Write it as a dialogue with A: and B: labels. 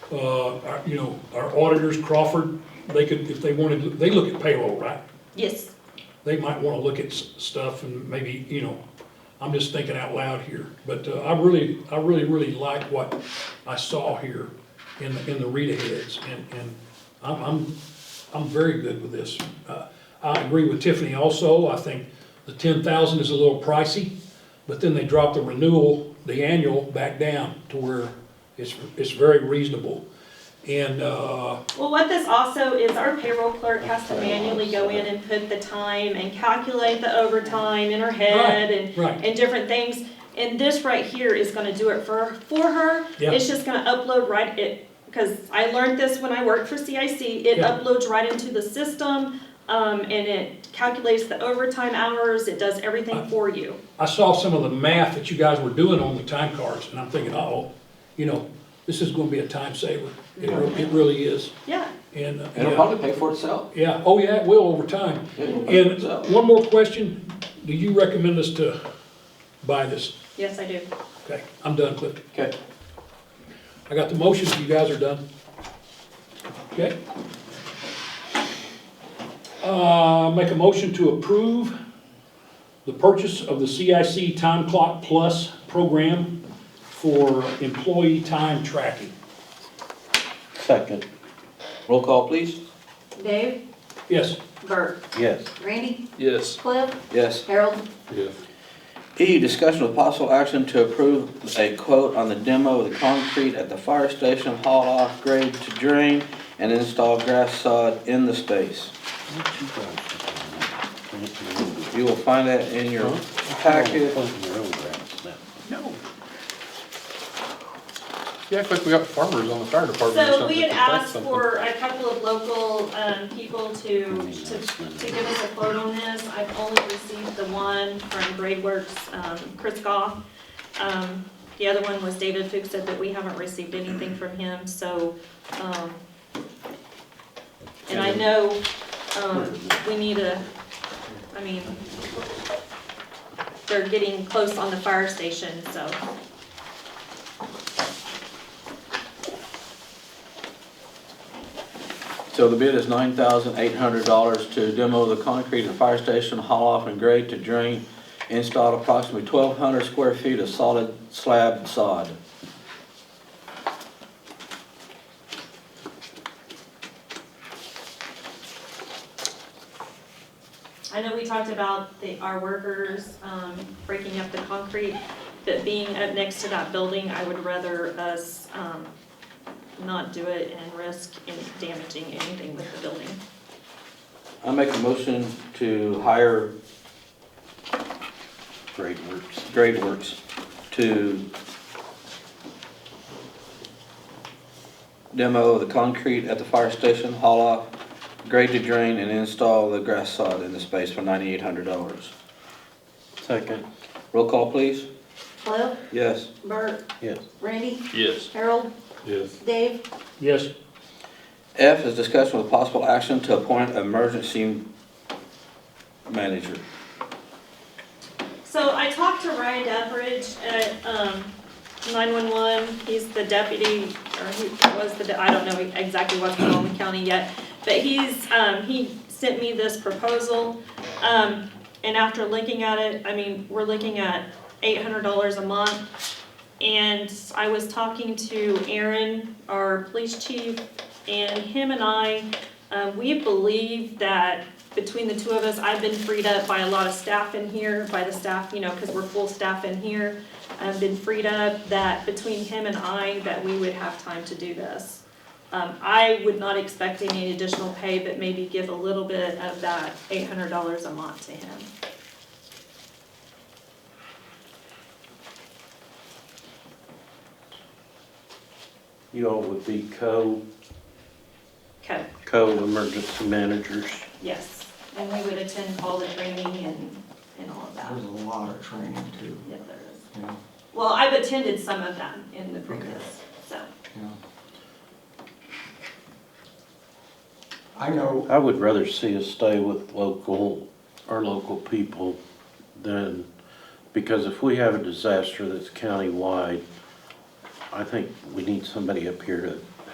A: uh, our- you know, our auditors, Crawford, they could, if they wanted, they look at payroll, right?
B: Yes,
A: They might wanna look at s- stuff and maybe, you know, I'm just thinking out loud here. But uh, I really, I really, really like what I saw here in, the- in the read aheads. And, and I'm, I'm, I'm very good with this. Uh, I agree with Tiffany also. I think the ten thousand is a little pricey. But then they dropped the renewal, the annual, back down to where it's, it's very reasonable. And, uh,
B: well, what this also is, our payroll clerk has to manually go in and put the time and calculate the overtime in her head and,
A: right,
B: and different things. And this right here is gonna do it for, for her.
A: Yeah.
B: It's just gonna upload right, it, because I learned this when I worked for CIC, it
A: Yeah.
B: uploads right into the system, um, and it calculates the overtime hours, it does everything for you.
A: I saw some of the math that you guys were doing on the time cards, and I'm thinking, oh, you know, this is gonna be a time saver. It, re- it really is,
B: Yeah,
A: and, uh,
C: And It'll
A: yeah,
C: probably pay for itself.
A: yeah, oh yeah, it will over time.
C: It'll pay for
A: And
C: itself.
A: one more question, do you recommend us to buy this?
B: yes, I do.
A: Okay, I'm done, Clifton.
C: Okay,
A: I got the motions, you guys are done. Okay? Uh, make a motion to approve the purchase of the CIC Time Clock Plus program for employee time tracking.
D: Second,
C: roll call, please.
E: Dave,
A: Yes,
E: Bert,
D: yes.
E: Randy,
F: Yes.
E: Cliff,
C: Yes.
E: Harold,
F: Yes.
C: E, discussion with possible action to approve a quote on the demo of the concrete at the fire station, haul off grade to drain, and install grass sod in the space. You will find that in your packet.
F: No. Yeah, it's like we got farmers on the fire department or
B: So
F: something.
B: we had
F: to plant
B: asked
F: something.
B: for a couple of local, um, people to, to, to give us a quote on this. I've only received the one from Grade Works, um, Chris Goff. Um, the other one was David Fuchs said that we haven't received anything from him, so, um, and I know, um, we need a, I mean, they're getting close on the fire station, so.
C: So the bid is nine thousand eight hundred dollars to demo the concrete at the fire station, haul off and grade to drain, install approximately twelve hundred square feet of solid slab sod.
B: I know we talked about the, our workers, um, breaking up the concrete, but being up next to that building, I would rather us, um, not do it and risk in damaging anything with the building.
C: I make a motion to hire
D: Great works.
C: Grade Works to demo the concrete at the fire station, haul off, grade to drain, and install the grass sod in the space for ninety-eight hundred dollars.
D: Second,
C: Roll call, please.
E: Cliff,
C: Yes.
E: Bert,
D: yes.
E: Randy,
F: Yes.
E: Harold,
F: Yes.
E: Dave,
A: yes,
C: F is discussion with possible action to appoint emergency manager.
B: So I talked to Ryan Dethridge at, um, nine-one-one, he's the deputy, or he was the, de- I don't know exactly what's going on in the county yet, but he's, um, he sent me this proposal, um, and after looking at it, I mean, we're looking at eight hundred dollars a month. And I was talking to Aaron, our police chief, and him and I, um, we believe that between the two of us, I've been freed up by a lot of staff in here, by the staff, you know, because we're full staff in here. I've been freed up that between him and I, that we would have time to do this. Um, I would not expect any additional pay, but maybe give a little bit of that eight hundred dollars a month to him.
D: You all would be co,
B: Okay,
D: co-emergency managers.
B: yes, and we would attend all the training and, and all of that.
G: There's a lot of training too,
B: Yeah, there is.
G: you know,
B: Well, I've attended some of them in the previous, so.
G: you know. I know,
D: I would rather see us stay with local, our local people than, because if we have a disaster that's countywide, I think we need somebody up here to